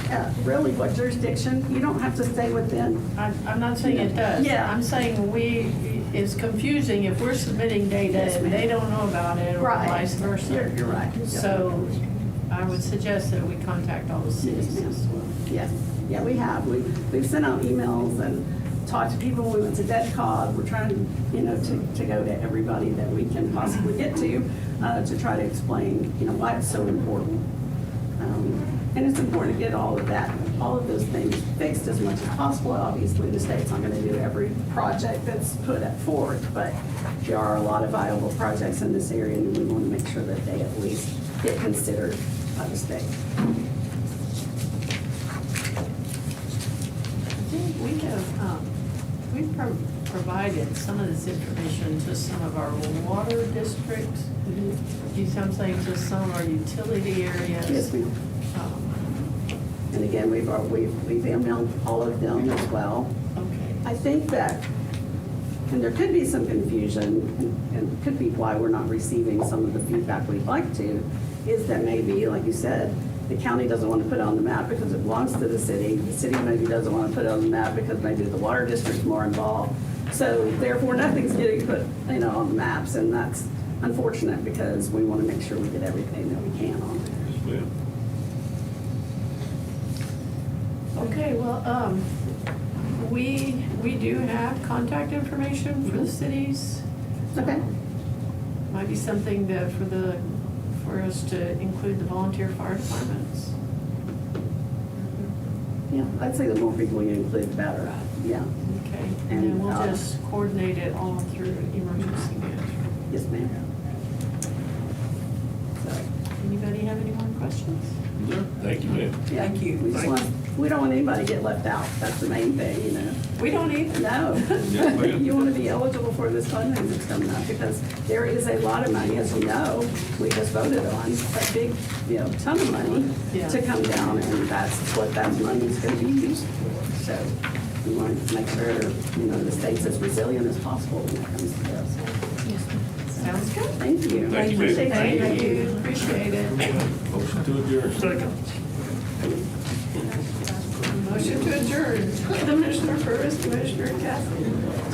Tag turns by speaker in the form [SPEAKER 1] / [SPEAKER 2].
[SPEAKER 1] uh, really what jurisdiction, you don't have to stay within.
[SPEAKER 2] I'm, I'm not saying it does.
[SPEAKER 1] Yeah.
[SPEAKER 2] I'm saying we, it's confusing if we're submitting data
[SPEAKER 1] Yes,
[SPEAKER 2] and
[SPEAKER 1] ma'am.
[SPEAKER 2] they don't know about it or
[SPEAKER 1] Right.
[SPEAKER 2] vice versa.
[SPEAKER 1] You're, you're right. Yeah.
[SPEAKER 2] So I would suggest that we contact all the
[SPEAKER 1] Yes,
[SPEAKER 2] cities
[SPEAKER 1] ma'am.
[SPEAKER 2] as well.
[SPEAKER 1] Yeah, yeah, we have. We, we've sent out emails and talked to people. We went to DEDCOG. We're trying, you know, to, to go to everybody that we can possibly get to, uh, to try to explain, you know, why it's so important. Um, And it's important to get all of that, all of those things fixed as much as possible. Obviously, the state's not gonna do every project that's put up forward, but there are a lot of viable projects in this area, and we wanna make sure that they at least get considered by the state.
[SPEAKER 2] I think we have, um, we've pro- provided some of this information to some of our water districts, do some things to some of our utility areas.
[SPEAKER 1] Mm-hmm. Yes, ma'am.
[SPEAKER 2] Um,
[SPEAKER 1] And again, we've, al- we've, we've emailed all of them as well.
[SPEAKER 2] Okay.
[SPEAKER 1] I think that, and there could be some confusion, and- and could be why we're not receiving some of the feedback we'd like to, is that maybe, like you said, the county doesn't want to put it on the map because it belongs to the city. The city maybe doesn't want to put it on the map because maybe the water district's more involved. So therefore, nothing's getting put, you know, on the maps, and that's unfortunate because we want to make sure we get everything that we can on there.
[SPEAKER 2] Okay, well, um, we, we do have contact information for the cities.
[SPEAKER 1] Okay?
[SPEAKER 2] Might be something that for the, for us to include the volunteer fire departments.
[SPEAKER 1] Yeah, I'd say the more people you include, the better. Yeah,
[SPEAKER 2] Okay, and then we'll
[SPEAKER 1] And, uh,
[SPEAKER 2] just coordinate it all through emergency management.
[SPEAKER 1] yes, ma'am. So,
[SPEAKER 2] Anybody have any more questions?
[SPEAKER 3] Thank you, ma'am.
[SPEAKER 1] yeah,
[SPEAKER 2] Thank you.
[SPEAKER 1] We just want, we don't want anybody to get left out. That's the main thing, you know?
[SPEAKER 2] We don't either.
[SPEAKER 1] No.
[SPEAKER 3] Yes, ma'am.
[SPEAKER 1] You want to be eligible for this funding that's coming up because there is a lot of money, as you know. We just voted on a big, you know, ton of money
[SPEAKER 2] Yeah.
[SPEAKER 1] to come down and that's what that money is going to be used for. So we want to make sure, you know, the state's as resilient as possible when it comes to this.
[SPEAKER 2] Sounds good.
[SPEAKER 1] Thank you.
[SPEAKER 3] Thank you, ma'am.
[SPEAKER 1] Appreciate
[SPEAKER 3] Thank you.
[SPEAKER 2] Thank you, appreciate it.
[SPEAKER 3] Motion to adjourn. Second.
[SPEAKER 2] Motion to adjourn. Commissioner Purvis, Commissioner Cassidy.